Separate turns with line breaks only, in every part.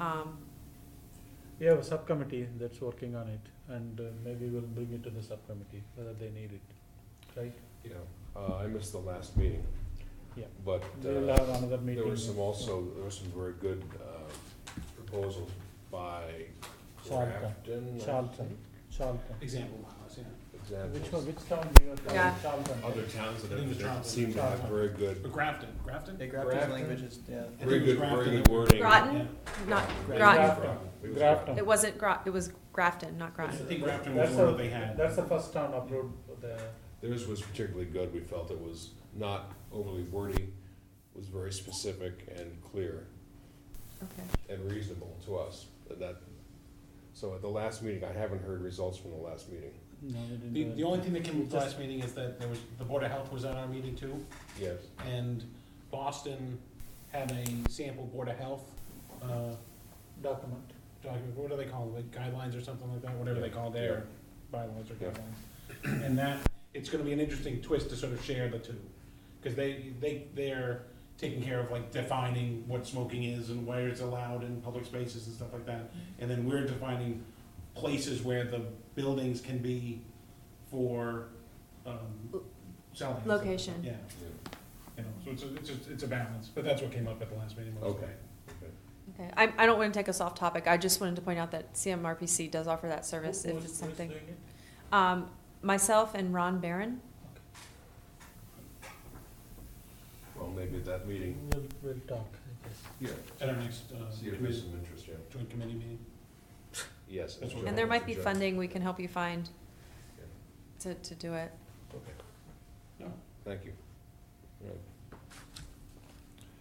Um,
We have a subcommittee that's working on it, and uh, maybe we'll bring it to the subcommittee, whether they need it, right?
Yeah, uh, I missed the last meeting.
Yeah.
But
We'll
uh,
have another meeting.
there were some also, there were some very good uh, proposals by
Charlton.
Grafton. I
Charlton,
think,
Charlton.
Example miles, yeah.
Which one,
Examples.
which town do you have?
Yeah.
Charlton.
Other towns
I
that
think it was
have,
Charlton.
seem to have
Charlton.
very good,
But Grafton, Grafton?
They grabbed his
Grafton?
languages, yeah.
I think
very
it was
good, very
Grafton
good
that-
wording.
Groton?
Yeah.
not,
Groton.
It was
Grafton.
it wasn't Gro, it was Grafton, not
I
Groton.
think Grafton
That's
was one
the-
that they had.
That's the first town approved the,
Theirs was particularly good, we felt it was not overly wordy, was very specific and clear.
Okay.
and reasonable to us, and that, so at the last meeting, I haven't heard results from the last meeting.
no, they didn't
The,
do
the only thing that came up
Just-
last meeting is that there was, the Board of Health was at our meeting too,
Yes.
and Boston had a sample Board of Health, uh,
it. document.
document, what do they call it, like guidelines or something like that, whatever they call
Yeah.
their bylaws or
Yeah.
guidelines. And that, it's gonna be an interesting twist to sort of share the two, cause they, they, they're taking care of like defining what smoking is and where it's allowed in public spaces and stuff like that. And then we're defining places where the buildings can be for, um, selling. and stuff like that.
Location.
Yeah, you know, so it's, a- it's, a- it's a balance, but that's what came up at the last meeting. mostly.
Okay.
Okay, I, I don't wanna take us off topic, I just wanted to point out that CMRPC does offer that service
Who-
if
who's-
it's
who's
something.
doing it?
Um, myself and Ron Barron,
Well, maybe at that meeting,
We'll, we'll talk, I guess.
yeah,
At our next, uh,
see if there's
committee-
some interest, yeah,
joint committee meeting.
yes.
That's what-
and there might be funding we can help you find to, to do it.
Okay.
No.
Thank you. Right.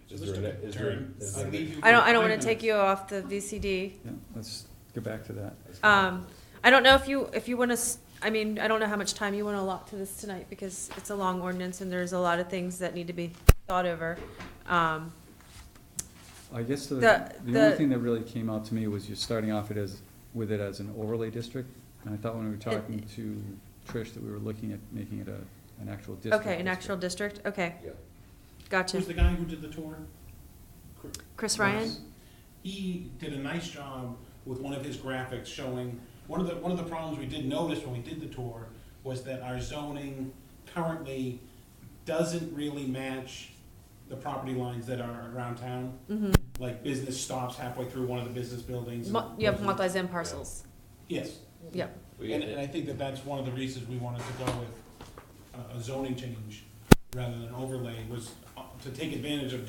So
Is
let's
there
do
an-
it.
is there an-
Turn.
is
I
there an-
leave you
I don't,
with
I don't wanna
five
take
minutes.
you off the VCD.
Yeah, let's go back to that.
Um, I don't know if you, if you want to, I mean, I don't know how much time you want to allot to this tonight, because it's a long ordinance, and there's a lot of things that need to be thought over. Um,
I guess the,
The-
the only
the-
thing that really came out to me was you're starting off it as, with it as an overlay district. And I thought when we were talking to Trish that we were looking at making it a, an actual district.
Okay, an
district.
actual district, okay,
Yeah,
gotcha.
Who's the guy who did the tour? Cr-
Chris Ryan?
Yes. He did a nice job with one of his graphics showing, one of the, one of the problems we did notice when we did the tour was that our zoning currently doesn't really match the property lines that are around town.
Mm-hmm.
Like business stops halfway through one of the business buildings.
You have multi-zone parcels,
Yes.
yep,
we,
And, and I think that that's one of the reasons we wanted to go with a- a zoning change rather than overlay was uh, to take advantage of